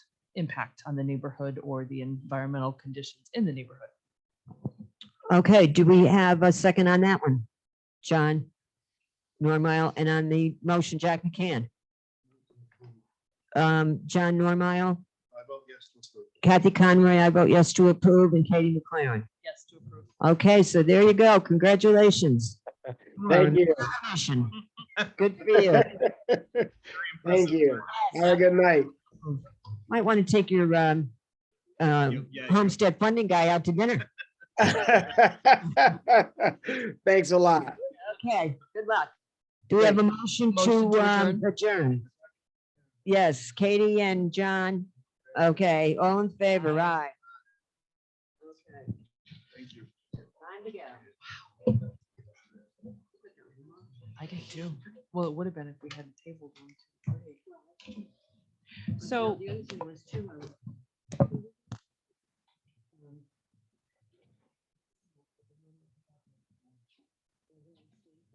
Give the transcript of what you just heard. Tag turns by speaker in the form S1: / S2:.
S1: impact on the neighborhood or the environmental conditions in the neighborhood.
S2: Okay, do we have a second on that one? John Normile, and on the motion, Jack McCann. Um, John Normile,
S3: I vote yes to approve.
S2: Kathy Conroy, I vote yes to approve, and Katie McLaren.
S1: Yes, to approve.
S2: Okay, so there you go. Congratulations.
S4: Thank you.
S2: Congratulations. Good for you.
S4: Thank you. Have a good night.
S2: Might want to take your, um, uh, homestead funding guy out to dinner.
S4: Thanks a lot.
S2: Okay, good luck. Do we have a motion
S1: Motion
S2: to
S1: to
S2: um, adjourn? Yes, Katie and John. Okay, all in favor, aye.
S3: Thank you.
S1: I did too. Well, it would have been if we had a table. So, um,